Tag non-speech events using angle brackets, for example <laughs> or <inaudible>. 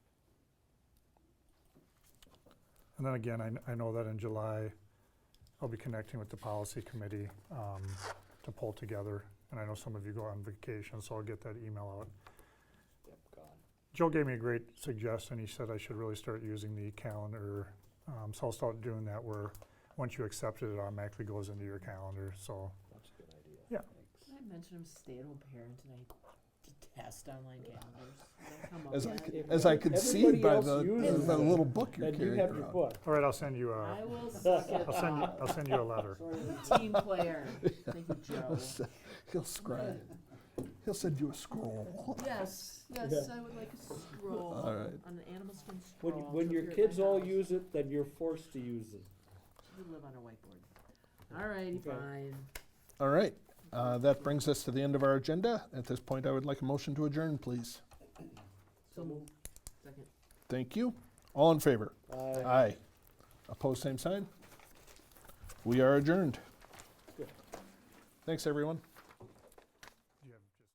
And then again, I, kn- I know that in July, I'll be connecting with the policy committee um, to pull together. And I know some of you go on vacation, so I'll get that email out. Yep, gone. Joe gave me a great suggestion. He said I should really start using the calendar. Um, so I'll start doing that where once you accept it, it automatically goes into your calendar. So That's a good idea. Yeah. Can I mention I'm a stay-at-home parent and I detest online calendars? Don't come up As I, with c- it. as I could see Everybody by else the, uses the it. little book you're Then you have carrying your around. book. all right, I'll send Uh, you a I will suck it I'll send you up. I'll send you a <laughs> letter. Sort of a team player. Thank you, <laughs> Joe. He'll scribe. He'll send you a scroll. Yes, yes, I would like a scroll, All right. on an animal skin scroll. When, when to your appear at kids my all house. use it, then you're forced to use it. We live on a whiteboard. All righty, Okay. fine. All right, uh, that brings us to the end of our agenda. At this point, I would like a motion to adjourn, please. So moved. Second. Thank you. All in favor? Uh, Aye. Opposed, same sign? We are adjourned. Good. Thanks, everyone.